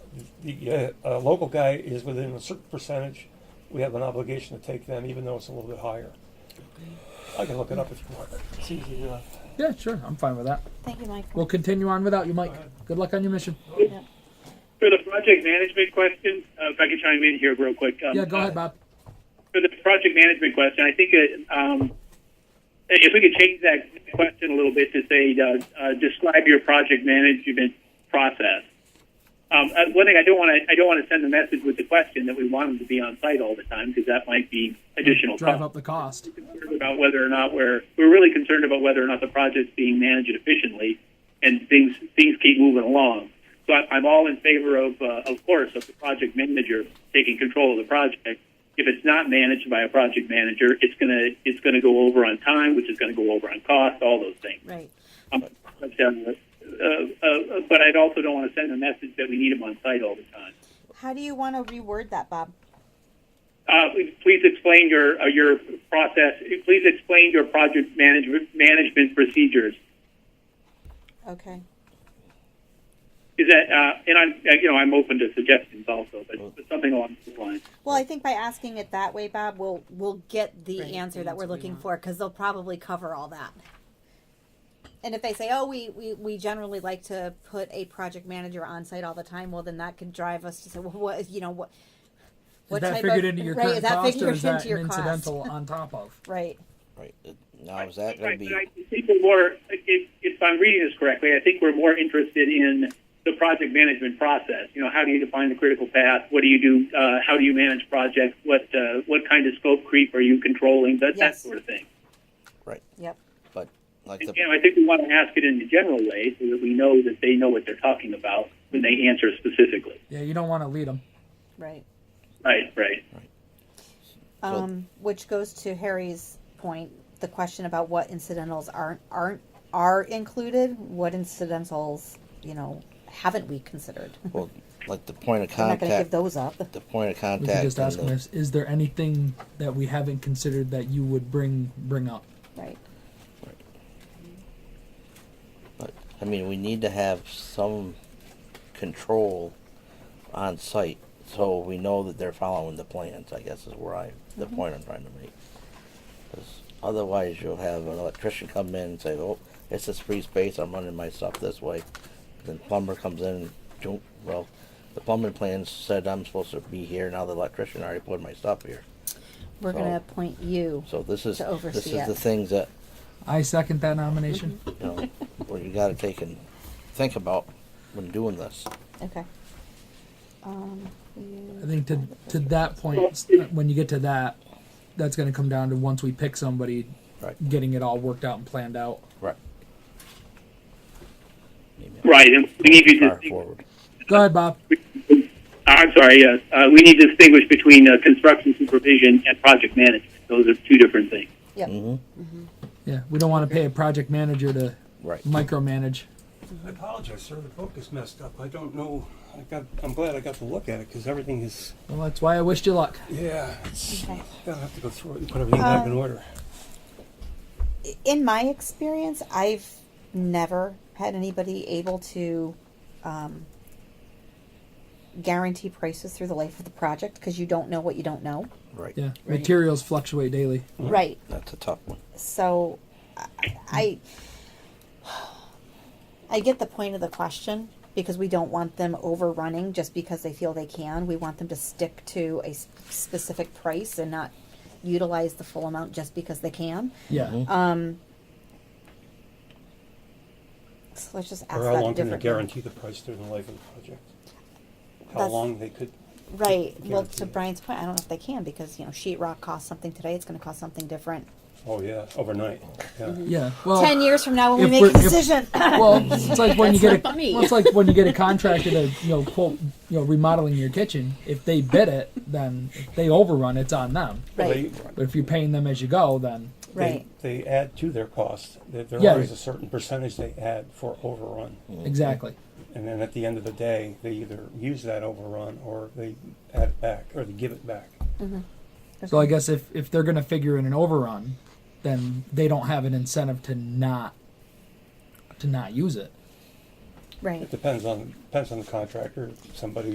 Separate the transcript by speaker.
Speaker 1: the uh, uh, local guy is within a certain percentage, we have an obligation to take them, even though it's a little bit higher. I can look it up if you want. It's easy enough.
Speaker 2: Yeah, sure. I'm fine with that.
Speaker 3: Thank you, Mike.
Speaker 2: We'll continue on without you, Mike. Good luck on your mission.
Speaker 4: For the project management question, uh, if I could chime in here real quick. Um,
Speaker 2: Yeah, go ahead, Bob.
Speaker 4: For the project management question, I think uh, um, if we could change that question a little bit to say, uh, uh, describe your project management process. Um, uh, one thing I don't want to I don't want to send the message with the question that we want them to be on site all the time because that might be additional
Speaker 2: Drive
Speaker 4: cost.
Speaker 2: up the cost.
Speaker 4: concerned about whether or not we're we're really concerned about whether or not the project's being managed efficiently, and things things keep moving along. So I, I'm all in favor of, uh, of course, of the project manager taking control of the project. If it's not managed by a project manager, it's gonna it's gonna go over on time, which is gonna go over on cost, all those things.
Speaker 3: Right.
Speaker 4: Um, but, uh, uh, uh, but I also don't want to send a message that we need them on site all the time.
Speaker 3: How do you want to reword that, Bob?
Speaker 4: Uh, Please explain your, uh, your process, please explain your project management, management procedures.
Speaker 3: Okay.
Speaker 4: Is that, uh, and I'm, uh, you know, I'm open to suggestions also, but but something along those lines.
Speaker 3: Well, I think by asking it that way, Bob, we'll we'll get the answer that we're looking for because they'll probably cover all that. And if they say, "Oh, we, we we generally like to put a project manager on site all the time," well, then that could drive us to say, "Well, what you know what."
Speaker 2: Is that figured into your
Speaker 3: right,
Speaker 2: current
Speaker 3: is that
Speaker 2: cost, or
Speaker 3: figured
Speaker 2: is that
Speaker 3: into your
Speaker 2: an
Speaker 3: cost?
Speaker 2: incidental on top of?
Speaker 3: Right.
Speaker 5: Right. uh, Now, is that going
Speaker 4: Right,
Speaker 5: to be?
Speaker 4: but I think we're more, if, if I'm reading this correctly, I think we're more interested in the project management process. You know, how do you define the critical path? What do you do? Uh, how do you manage projects? What, uh, what kind of scope creep are you controlling? That, that
Speaker 3: Yes.
Speaker 4: sort of thing.
Speaker 5: Right.
Speaker 3: Yep.
Speaker 5: But like
Speaker 4: And,
Speaker 5: the
Speaker 4: you know, I think we want to ask it in a general way so that we know that they know what they're talking about when they answer specifically.
Speaker 2: Yeah, you don't want to lead them.
Speaker 3: Right.
Speaker 4: Right, right.
Speaker 5: Well-
Speaker 3: Um, which goes to Harry's point, the question about what incidentals aren't aren't are included, what incidentals, you know, haven't we considered?
Speaker 5: well, like the point of
Speaker 3: We're not going to give
Speaker 5: contact.
Speaker 3: those up.
Speaker 5: The point of
Speaker 2: We could
Speaker 5: contact.
Speaker 2: just
Speaker 5: and
Speaker 2: ask them,
Speaker 5: the-
Speaker 2: is, is there anything that we haven't considered that you would bring bring up?
Speaker 3: Right.
Speaker 5: But I mean, we need to have some control on site, so we know that they're following the plans. I guess is where I the
Speaker 3: Mm-hmm.
Speaker 5: point I'm trying to make. 'Cause otherwise, you'll have an electrician come in and say, "Oh, it's this free space. I'm running my stuff this way." Then plumber comes in. "Don't- Well, the plumbing plan said I'm supposed to be here. Now the electrician already put my stuff here.
Speaker 3: We're
Speaker 5: So-
Speaker 3: going to appoint you.
Speaker 5: So this is
Speaker 3: To oversee
Speaker 5: this is
Speaker 3: it.
Speaker 5: the things that
Speaker 2: I second that nomination.
Speaker 5: you know where you got to take and think about when doing this.
Speaker 3: Okay. Um,
Speaker 2: I think to to that point, s- when you get to that, that's going to come down to once we pick somebody,
Speaker 5: Right.
Speaker 2: getting it all worked out and planned out.
Speaker 5: Right.
Speaker 4: Right, and we need to
Speaker 5: Fire
Speaker 4: distinguish.
Speaker 5: forward.
Speaker 2: Go ahead, Bob.
Speaker 4: I'm sorry, yes. Uh, we need to distinguish between uh, construction supervision and project management. Those are two different things.
Speaker 3: yep.
Speaker 5: Mm-hmm.
Speaker 2: Yeah, we don't want to pay a project manager to
Speaker 5: Right.
Speaker 2: micromanage.
Speaker 1: I apologize, sir, the book is messed up. I don't know, I got, I'm glad I got to look at it, because everything is,
Speaker 2: Well, that's why I wished you luck.
Speaker 1: yeah, it's,
Speaker 3: Okay. Um,
Speaker 1: I'll have to go through it and put everything back in order.
Speaker 3: in my experience, I've never had anybody able to um, guarantee prices through the life of the project because you don't know what you don't know.
Speaker 5: Right.
Speaker 2: Yeah, materials fluctuate daily.
Speaker 3: Right.
Speaker 5: That's a tough one.
Speaker 3: So, I, I, I get the point of the question because we don't want them overrunning just because they feel they can. We want them to stick to a s- specific price and not utilize the full amount just because they can.
Speaker 2: Yeah,
Speaker 3: So let's just ask
Speaker 1: Or
Speaker 3: that
Speaker 1: how
Speaker 3: a
Speaker 1: long can they
Speaker 3: different way.
Speaker 1: guarantee the price during the life of the project? How
Speaker 3: That's-
Speaker 1: long they could,
Speaker 3: Right. Well,
Speaker 1: guarantee
Speaker 3: to
Speaker 1: it.
Speaker 3: Brian's point, I don't know if they can because you know sheetrock costs something today. It's going to cost something different
Speaker 1: oh yeah, overnight, yeah.
Speaker 3: Mm-hmm.
Speaker 2: yeah. Well,
Speaker 3: ten years from now when we
Speaker 2: if
Speaker 3: make
Speaker 2: we're-
Speaker 3: a
Speaker 2: if-
Speaker 3: decision.
Speaker 2: Well, it's like when you
Speaker 6: That's
Speaker 2: get a
Speaker 6: not funny.
Speaker 2: well, it's like when you get a contractor to you know quote you know remodeling your kitchen. If they bid it, then if they overrun, it's on them.
Speaker 1: Well,
Speaker 3: right.
Speaker 1: they-
Speaker 2: But if you're paying them as you go, then
Speaker 3: Right.
Speaker 1: They, they add to their cost, there, there
Speaker 2: Yeah.
Speaker 1: always a certain percentage they add for overrun.
Speaker 2: exactly.
Speaker 1: And then at the end of the day, they either use that overrun or they add it back, or they give it back.
Speaker 2: So I guess if if they're gonna figure in an overrun, then they don't have an incentive to not to not use it.
Speaker 3: Right.
Speaker 1: It depends on, depends on the contractor, somebody